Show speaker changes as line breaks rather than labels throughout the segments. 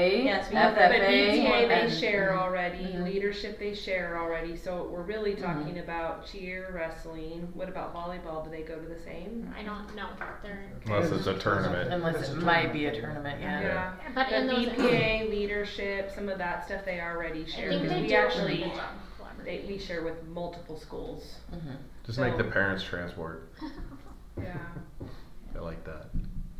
yes, we have that, but
FFA
ETA they
and-
share already,
Mhm.
leadership they share already. So we're really
Mm-hmm.
talking about cheer, wrestling. What about volleyball? Do they go to the same?
I don't know. They're,
Unless it's a tournament.
Unless it might be a tournament, yeah.
Yeah.
but
But
in those,
BPA leadership, some of that stuff they already
I
share.
think
because
they
we
do a really
actually
good job
they, we
collaborating.
share with multiple schools.
Mhm.
Just make the parents transport.
Yeah.
I like that.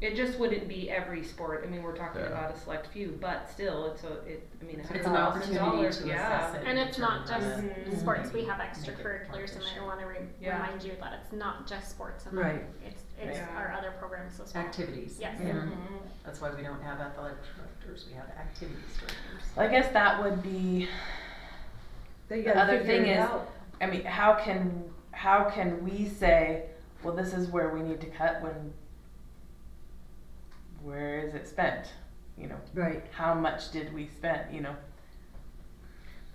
It just wouldn't be every sport. I mean, we're talking
Yeah.
about a select few, but still, it's a. It, I mean,
It's an opportunity to
$100,000,
assess
yeah.
it.
And it's not just
Mhm.
sports. We have
Make it
extracurriculars, and I
partnership.
want to re-
Yeah.
remind you that it's not just sports. and
Right.
It's, it's
Right.
our other programs as well.
Activities.
Yes.
Yeah.
Mhm.
That's why we don't have athletic directors, we have activities directors.
Well, I guess that would be, the other thing is, I mean, how can, how can we say, well, this is where we need to cut when, where is it spent? You know,
Right.
how much did we spend, you know?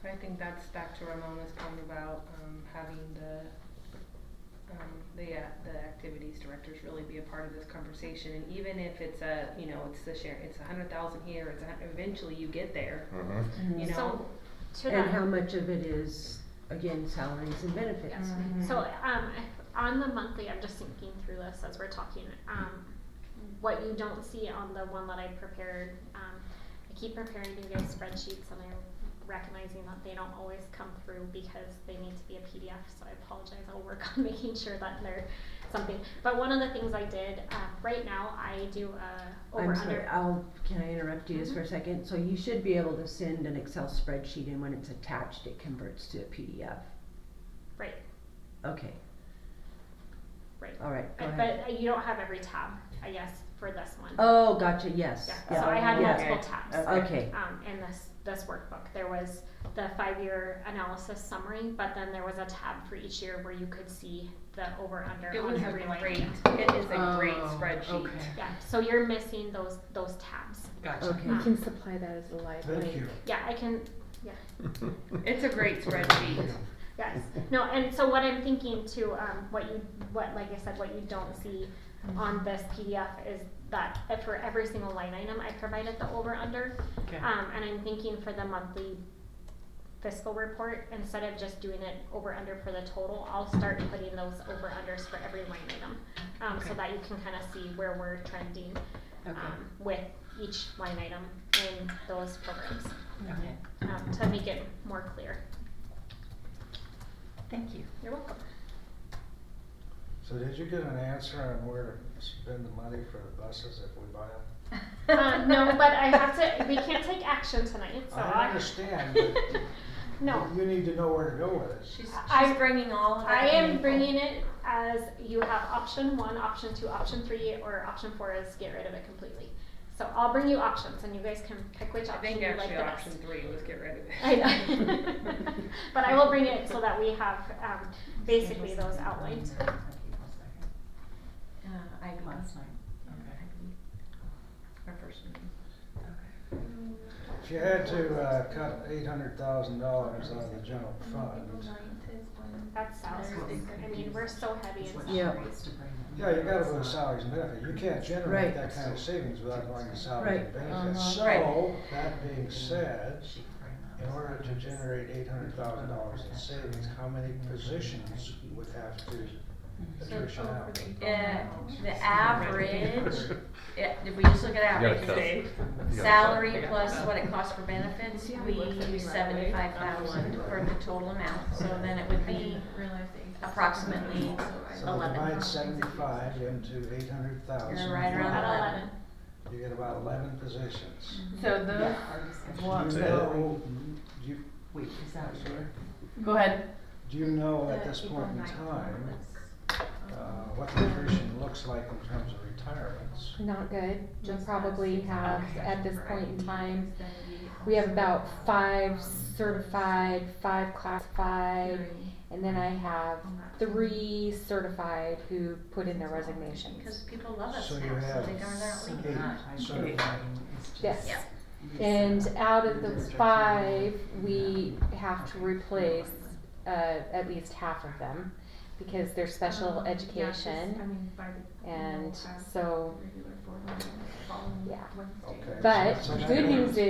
I think that's back to Ramona's point about um, having the um, the uh, the activities directors really be a part of this conversation, and even if it's a you know it's the share it's a hundred thousand here, it's a, hun- eventually you get there,
hmm
you know.
So, to
And
that-
how much of it is, again, salaries and benefits?
Yes. Uh-huh. So, um, if- on the monthly, I'm just thinking through this as we're talking, um, what you don't see on the one that I prepared, um, I keep preparing you guys spreadsheets and I'm recognizing that they don't always come through because they need to be a PDF, so I apologize, I'll work on making sure that they're something. But one of the things I did, um, right now, I do a over
I'm sorry,
under,
I'll, can I interrupt you just for a second? So you should be able to send an Excel spreadsheet and when it's attached, it converts to a PDF.
right,
Okay,
right.
all right, go
But-
ahead.
But you don't have every tab, I guess, for this one.
Oh, gotcha, yes.
Yeah,
Yeah.
so I had
Yeah.
multiple tabs.
Okay, Uh,
um, in this this workbook. There was the five-year analysis summary, but then there was a tab for each year where you could see the over/under
It
on
was a
every line.
great it is a great
Oh,
spreadsheet.
okay.
Yeah, so you're missing those those tabs.
Gotcha.
okay.
Um,
can supply that as a live link.
yeah, I can.
It's a great spreadsheet.
Yes. No, and so what I'm thinking too, um, what you what like I said, what you don't see on this PDF is that if for every single line item, I provided the over/under.
Okay.
Um, and I'm thinking for the monthly fiscal report, instead of just doing it over under for the total, I'll start putting those over unders for every line item. Um, so
Okay.
that you can kind of see where we're trending, um, with each line item in those programs,
Okay,
um, to make it more clear.
thank you.
You're welcome.
So did you get an answer on where to spend the money for the buses if we buy them?
Uh, no, but I have to, we can't take action tonight, so
I
I.
understand, but
No,
you need to know where to go with it.
She's, she's
I-
bringing all of that
I am
info.
bringing it as you have option one, option two, option three, or option four is get rid of it completely. So I'll bring you options and you guys can pick which
I
option
think
you
actually
like the best.
option three was get rid of it.
I know. But I will bring it so that we have, um, basically those outlined.
Uh, I
Last night, okay.
uh, our first meeting.
If you had to, uh, cut eight hundred thousand dollars out of the general fund,
That's salaries. I mean, we're so heavy in
Yeah.
salaries.
yeah, you gotta go to salaries and benefits. You can't generate
Right.
that kind of savings without going to salaries
Right.
and benefits.
Uh-huh. Right.
So, that being said, in order to generate eight hundred thousand dollars in savings, how many positions would have to
Mm-hmm.
attrition out?
Uh, the average, yeah, if we just look at average,
cut.
say,
You gotta cut.
salary plus what it costs for benefits, we use
right away.
seventy-five thousand for the total amount, so then it would be approximately
So
eleven.
divide seventy-five into eight hundred thousand.
You're right around
About
eleven.
You get about eleven positions.
So those,
Do
Mm-hmm.
Well,
you
So-
know, do you,
Wait, is that your?
go ahead.
do you know at this point in time, uh, what the attrition looks like in terms of retirements?
Not good. We probably have, at this point in time, we have about five certified, five classified, and then I have three certified who put in their resignations.
Because people love us
So
now,
you
so
have
Oh, they darn aren't leaving.
eight certified.
Yes. And out of the five, we have to replace, uh, at least half of them because they're special education. And so, yeah.
Okay, so
But
that's-
good news is.